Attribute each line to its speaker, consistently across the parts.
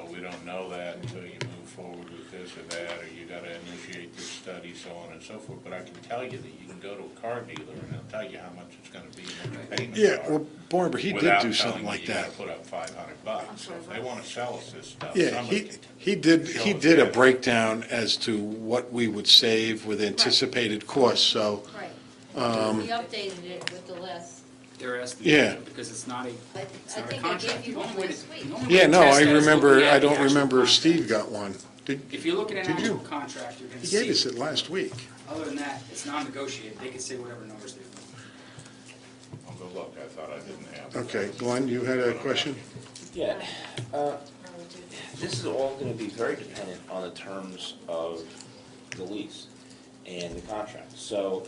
Speaker 1: won't know that until you move forward with this or that, or you gotta initiate this study, so on and so forth. But I can tell you that you can go to a car dealer and they'll tell you how much it's gonna be, and what your payments are.
Speaker 2: Yeah, well, Barber, he did
Speaker 1: without telling
Speaker 2: do something
Speaker 1: you
Speaker 2: like
Speaker 1: you
Speaker 2: that.
Speaker 1: gotta Put up five hundred bucks, so if they wanna sell us this stuff,
Speaker 2: Yeah,
Speaker 1: somebody
Speaker 2: he,
Speaker 1: can.
Speaker 2: he did,
Speaker 1: show
Speaker 2: he
Speaker 1: us
Speaker 2: did a
Speaker 1: that.
Speaker 2: breakdown as to what we would save with anticipated costs, so,
Speaker 3: Right.
Speaker 2: Um,
Speaker 3: We updated it with the list.
Speaker 4: Their estimate.
Speaker 2: Yeah.
Speaker 4: Because it's not a,
Speaker 3: I I
Speaker 4: it's not a
Speaker 3: think I
Speaker 4: contract.
Speaker 3: gave you
Speaker 4: The only
Speaker 3: one
Speaker 4: way to-
Speaker 3: last week.
Speaker 4: the only way
Speaker 2: yeah,
Speaker 4: to
Speaker 2: no,
Speaker 4: test
Speaker 2: I
Speaker 4: that is looking
Speaker 2: remember,
Speaker 4: at
Speaker 2: I
Speaker 4: the
Speaker 2: don't
Speaker 4: actual
Speaker 2: remember if
Speaker 4: contract.
Speaker 2: Steve got one. Did,
Speaker 4: If you look at an
Speaker 2: Did
Speaker 4: actual
Speaker 2: you?
Speaker 4: contract, you're gonna
Speaker 2: he gave us
Speaker 4: see,
Speaker 2: it last week.
Speaker 4: other than that, it's non-negotiated, they can say whatever numbers they want.
Speaker 1: I'll go Oh, look, I thought I didn't have. it.
Speaker 2: Okay, Glenn, you had a question?
Speaker 5: Yeah, uh, this is all gonna be very dependent on the terms of the lease and the contract. So,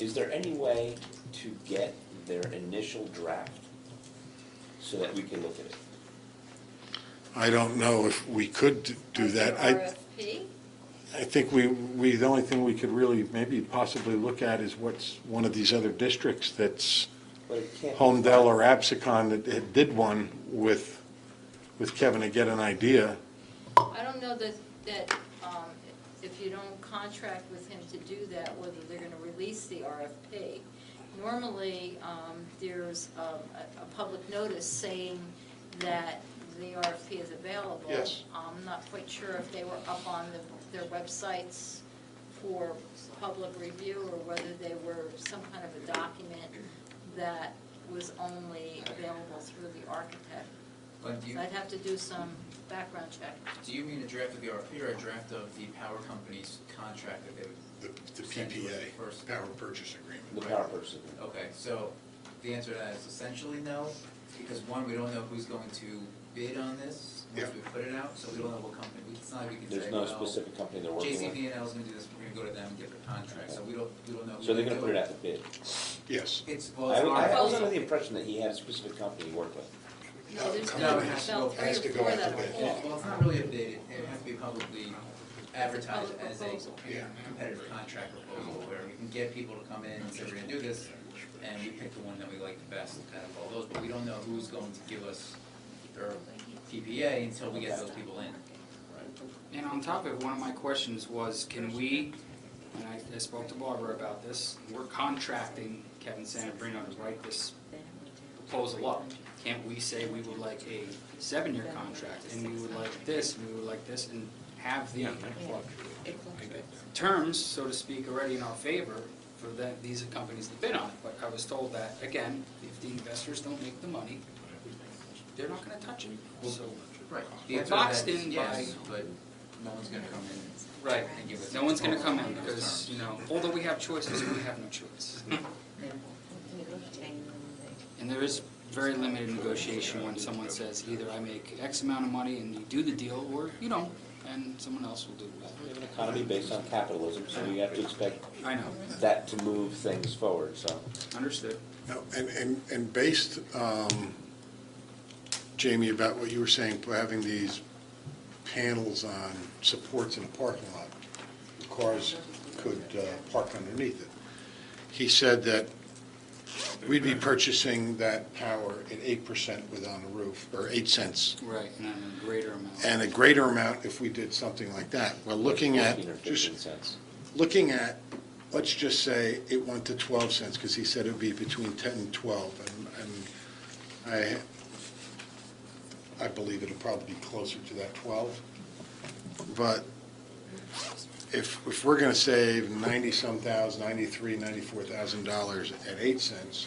Speaker 5: is there any way to get their initial draft so that we can look at it?
Speaker 2: I don't know if we could do that. I,
Speaker 3: RFP?
Speaker 2: I think we, we, the only thing we could really maybe possibly look at is what's one of these other districts that's
Speaker 5: But it can't. be-
Speaker 2: Homedale or Absicon that had- did one with, with Kevin to get an idea.
Speaker 3: I don't know that, that um, if you don't contract with him to do that, whether they're going to release the RFP. Normally, um, there's um, a, a public notice saying that the RFP is available.
Speaker 2: Yes.
Speaker 3: I'm not quite sure if they were up on the- their websites for public review or whether they were some kind of a document that was only available through the architect.
Speaker 6: But do you,
Speaker 3: So I'd have to do some background check.
Speaker 6: do you mean a draft of the RFP or a draft of the power company's contract that they would?
Speaker 7: The
Speaker 6: send to us
Speaker 7: PPA,
Speaker 6: first?
Speaker 7: power purchase agreement.
Speaker 5: The power person.
Speaker 6: Okay, so the answer to that is essentially no, because one, we don't know who's going to bid on this
Speaker 7: Yeah.
Speaker 6: once we put it out, so we don't know what company, we- it's not like we can
Speaker 5: There's
Speaker 6: say,
Speaker 5: no
Speaker 6: well,
Speaker 5: specific company they're working with.
Speaker 6: JCVNL is gonna do this, we're gonna go to them, and get the contract, so we don't, we don't know. who
Speaker 5: So they're
Speaker 6: they
Speaker 5: gonna
Speaker 6: do
Speaker 5: put it out to bid.
Speaker 7: Yes.
Speaker 6: It's, well,
Speaker 5: I
Speaker 6: it's an
Speaker 5: I- I was
Speaker 6: RFP.
Speaker 5: under the impression that he had a specific company he worked with.
Speaker 3: No, there's
Speaker 7: Come
Speaker 6: No,
Speaker 7: on,
Speaker 6: it has to go-
Speaker 3: about
Speaker 6: it has
Speaker 3: three or
Speaker 7: to go
Speaker 3: four
Speaker 7: out
Speaker 3: that
Speaker 7: to
Speaker 3: are
Speaker 7: bid.
Speaker 6: Well,
Speaker 3: full.
Speaker 6: well, it's not really a bid, it it would have to be publicly advertised
Speaker 3: public
Speaker 6: as a
Speaker 3: proposal.
Speaker 7: Yeah.
Speaker 6: competitive contract proposal where we can get people to come in and say, we're gonna do this, and we pick the one that we like the best out of all those, but we don't know who's going to give us their PPA until we get those people in.
Speaker 4: And on top of it, one of my questions was, can we, and I I spoke to Barbara about this, we're contracting Kevin Santabrino to write this proposal up. Can't we say we would like a seven-year contract, and we would like this, and we would like this, and have the terms, so to speak, already in our favor for the, these companies that bid on it? But I was told that, again, if the investors don't make the money, they're not gonna touch it, so.
Speaker 6: Right. The
Speaker 4: We're
Speaker 6: answer to that
Speaker 4: boxed
Speaker 6: is
Speaker 4: in
Speaker 6: yes,
Speaker 4: by-
Speaker 6: but no one's gonna come in.
Speaker 4: Right.
Speaker 6: And give us.
Speaker 4: No one's gonna come in because, you know, although we have choices, we have no choice. And there is very limited negotiation when someone says, either I make X amount of money and you do the deal, or you don't, and someone else will do
Speaker 5: We
Speaker 4: it.
Speaker 5: have an economy based on capitalism, so we have to expect
Speaker 4: I know,
Speaker 5: that to move things forward, so.
Speaker 4: understood.
Speaker 2: No, And, and, and based, um, Jamie, about what you were saying, for having these panels on supports in a parking lot, cars could uh, park underneath it. He said that we'd be purchasing that power at eight percent with on the roof, or eight cents,
Speaker 4: Right, and I'm a greater amount.
Speaker 2: and a greater amount if we did something like that. Well, looking at,
Speaker 5: 14 or
Speaker 2: just
Speaker 5: 15 cents.
Speaker 2: looking at, let's just say it went to 12 cents, because he said it would be between 10 and 12, and, and I, I believe it'll probably be closer to that 12. But if, if we're gonna save 90-some thousand, 93, 94,000 dollars at 8 cents,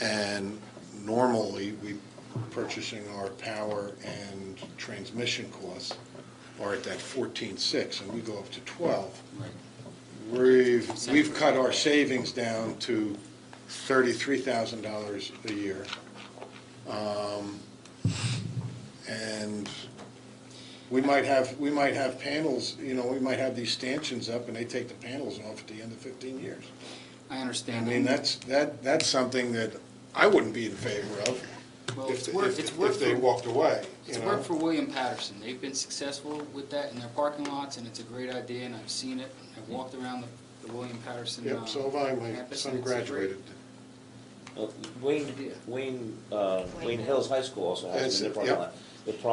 Speaker 2: and normally we purchasing our power and transmission costs are at that 14.6, and we go up to 12,
Speaker 4: Right.
Speaker 2: We've, we've cut our savings down to thirty-three thousand dollars a year. Um, And we might have, we might have panels, you know, we might have these stanchions up and they take the panels off at the end of fifteen years.
Speaker 4: I
Speaker 2: I
Speaker 4: understand.
Speaker 2: mean, that's, that, that's something that I wouldn't be in favor of
Speaker 4: Well,
Speaker 2: if,
Speaker 4: it's worth, it's
Speaker 2: if,
Speaker 4: worth.
Speaker 2: if they walked away, you
Speaker 4: It's
Speaker 2: know?
Speaker 4: worked for William Patterson. They've been successful with that in their parking lots, and it's a great idea, and I've seen it. I've walked around the, the William Patterson. uh,
Speaker 2: Mm. Yep, so have I, my
Speaker 4: campus, and
Speaker 2: son
Speaker 4: it's a great-
Speaker 2: graduated.
Speaker 5: Well, Wayne, Wayne, uh, Wayne Hills High School also has it in their
Speaker 2: That's it,
Speaker 5: parking
Speaker 2: yep.
Speaker 5: lot. The problem